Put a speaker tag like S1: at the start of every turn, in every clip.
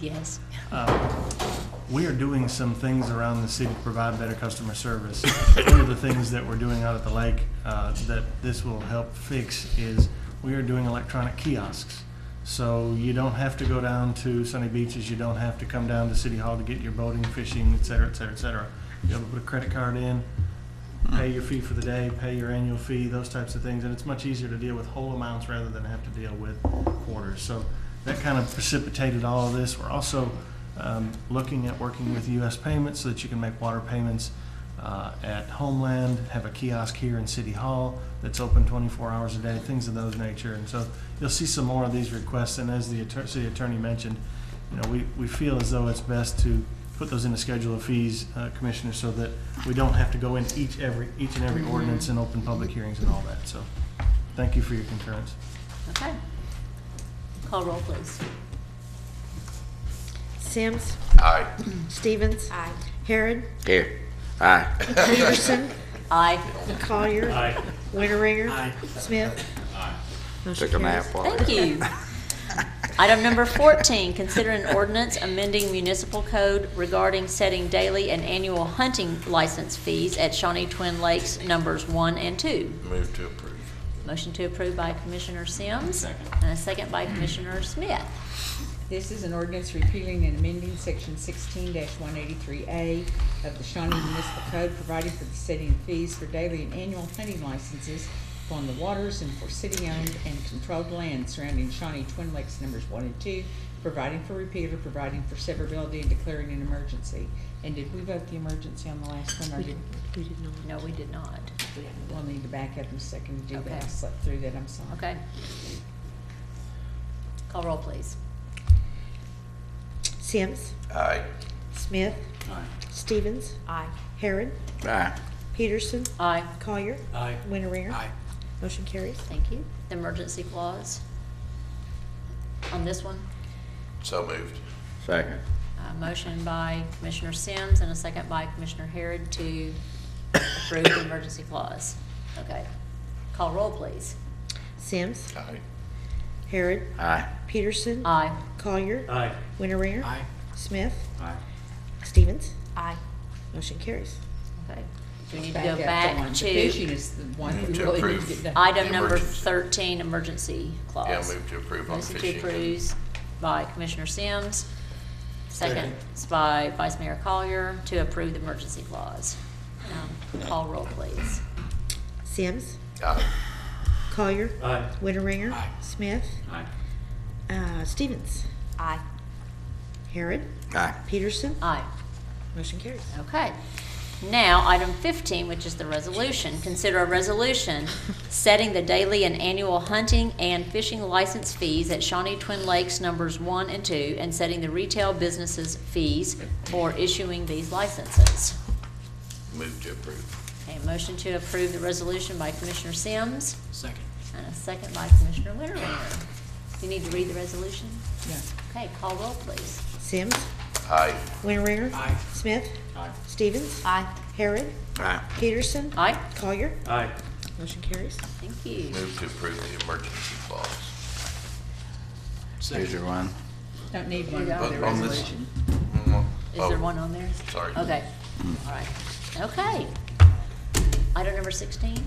S1: Yes.
S2: Uh, We are doing some things around the city to provide better customer service. One of the things that we're doing out at the lake uh, that this will help fix is we are doing electronic kiosks. So you don't have to go down to sunny beaches, you don't have to come down to City Hall to get your boating, fishing, et cetera, et cetera, et cetera. You're able to put a credit card in, pay your fee for the day, pay your annual fee, those types of things, and it's much easier to deal with whole amounts rather than have to deal with quarters. So that kind of precipitated all of this. We're also um, looking at working with US Payments so that you can make water payments uh, at Homeland, have a kiosk here in City Hall that's open 24 hours a day, things of those nature. And so you'll see some more of these requests, and as the atter- city attorney mentioned, you know, we, we feel as though it's best to put those in a schedule of fees, uh, Commissioner, so that we don't have to go in each every, each and every ordinance and open public hearings and all that. So, thank you for your concurrence.
S1: Okay. Call roll, please.
S3: Sims.
S4: Aye.
S3: Stevens.
S1: Aye.
S3: Harrod.
S4: Here. Aye.
S3: Peterson.
S1: Aye.
S3: Collier. Winteringer. Smith. Motion
S4: Took a nap
S3: carries.
S4: while.
S1: Thank you. Item number 14, consider an ordinance amending municipal code regarding setting daily and annual hunting license fees at Shawnee Twin Lakes Numbers 1 and 2.
S4: Move to approve.
S1: Motion to approve by Commissioner Sims. And a second by Commissioner Smith.
S5: This is an ordinance repealing and amending section sixteen one eighty-three A of the Shawnee Municipal Code, providing for the setting of fees for daily and annual hunting licenses upon the waters and for city-owned and controlled land surrounding Shawnee Twin Lakes numbers one and two, providing for repeal or providing for severability and declaring an emergency. And did we vote the emergency on the last one, or did,
S3: We did not.
S1: No, we did not.
S5: we'll need to back up in a second to do that, I
S1: Okay.
S5: slept through that, I'm sorry.
S1: Okay. Call roll, please.
S3: Sims.
S4: Aye.
S3: Smith. Stevens.
S1: Aye.
S3: Harrod.
S4: Aye.
S3: Peterson.
S1: Aye.
S3: Collier.
S2: Aye.
S3: Winteringer. Motion carries.
S1: Thank you. The emergency clause on this one,
S4: So moved. Second.
S1: a motion by Commissioner Sims and a second by Commissioner Harrod to approve the emergency clause. Okay. Call roll, please.
S3: Sims.
S4: Aye.
S3: Harrod.
S4: Aye.
S3: Peterson.
S1: Aye.
S3: Collier.
S2: Aye.
S3: Winteringer. Smith.
S4: Aye.
S3: Stevens.
S1: Aye.
S3: Motion carries.
S1: Okay. Do we need to
S5: Back
S1: go
S5: up one.
S1: back
S5: The Fishing
S1: to
S5: is the one
S4: Move
S5: we
S4: to
S5: really need to
S4: approve.
S5: get done.
S1: item number
S4: Emergency.
S1: thirteen, emergency clause?
S4: Yeah, move to approve on
S1: Motion to
S4: fishing.
S1: approve by Commissioner Sims. Second is by Vice Mayor Collier to approve the emergency clause. Um, Call roll, please.
S3: Sims.
S4: Aye.
S3: Collier.
S2: Aye.
S3: Winteringer. Smith. Uh, Stevens.
S1: Aye.
S3: Harrod.
S4: Aye.
S3: Peterson.
S1: Aye.
S3: Motion carries.
S1: Okay. Now, item 15, which is the resolution. Consider a resolution setting the daily and annual hunting and fishing license fees at Shawnee Twin Lakes Numbers 1 and 2, and setting the retail businesses' fees for issuing these licenses.
S4: Move to approve.
S1: Okay, motion to approve the resolution by Commissioner Sims.
S6: Second.
S1: And a second by Commissioner Winteringer. Do you need to read the resolution?
S5: Yeah.
S1: Okay, call roll, please.
S3: Sims.
S4: Aye.
S3: Winteringer.
S6: Aye.
S3: Smith.
S6: Aye.
S3: Stevens.
S1: Aye.
S3: Harrod.
S4: Aye.
S3: Peterson.
S1: Aye,
S3: Collier.
S2: Aye.
S3: Motion carries.
S1: thank you.
S4: Move to approve the emergency clause.
S6: Second.
S4: one.
S5: Don't need one for
S1: On-
S5: the
S4: on this-
S5: resolution.
S4: Oh.
S1: Is there one on there?
S4: sorry.
S1: Okay, all right. Okay. Item number sixteen,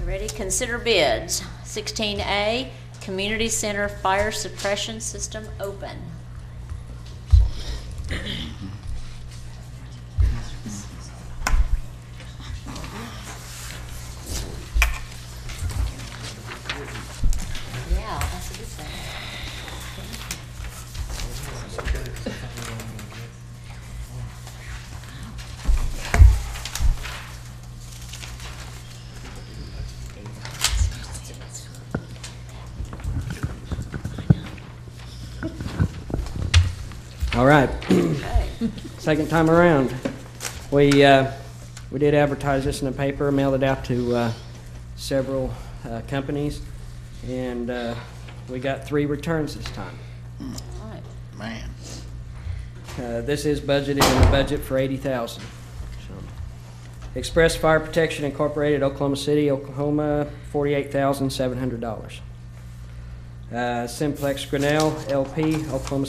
S1: you ready? Consider bids. Sixteen A, Community Center Fire Suppression System Open. Yeah, that's a good thing.
S7: All right,
S1: Okay.
S7: second time around. We, uh, we did advertise this in the paper, mailed it out to uh, several uh, companies, and uh, we got three returns this time.
S1: All right.
S4: Man.
S7: Uh, This is budgeted in the budget for eighty thousand. Express Fire Protection Incorporated, Oklahoma City, Oklahoma, forty-eight Uh, thousand seven hundred dollars. Simplex Grinnell LP, Oklahoma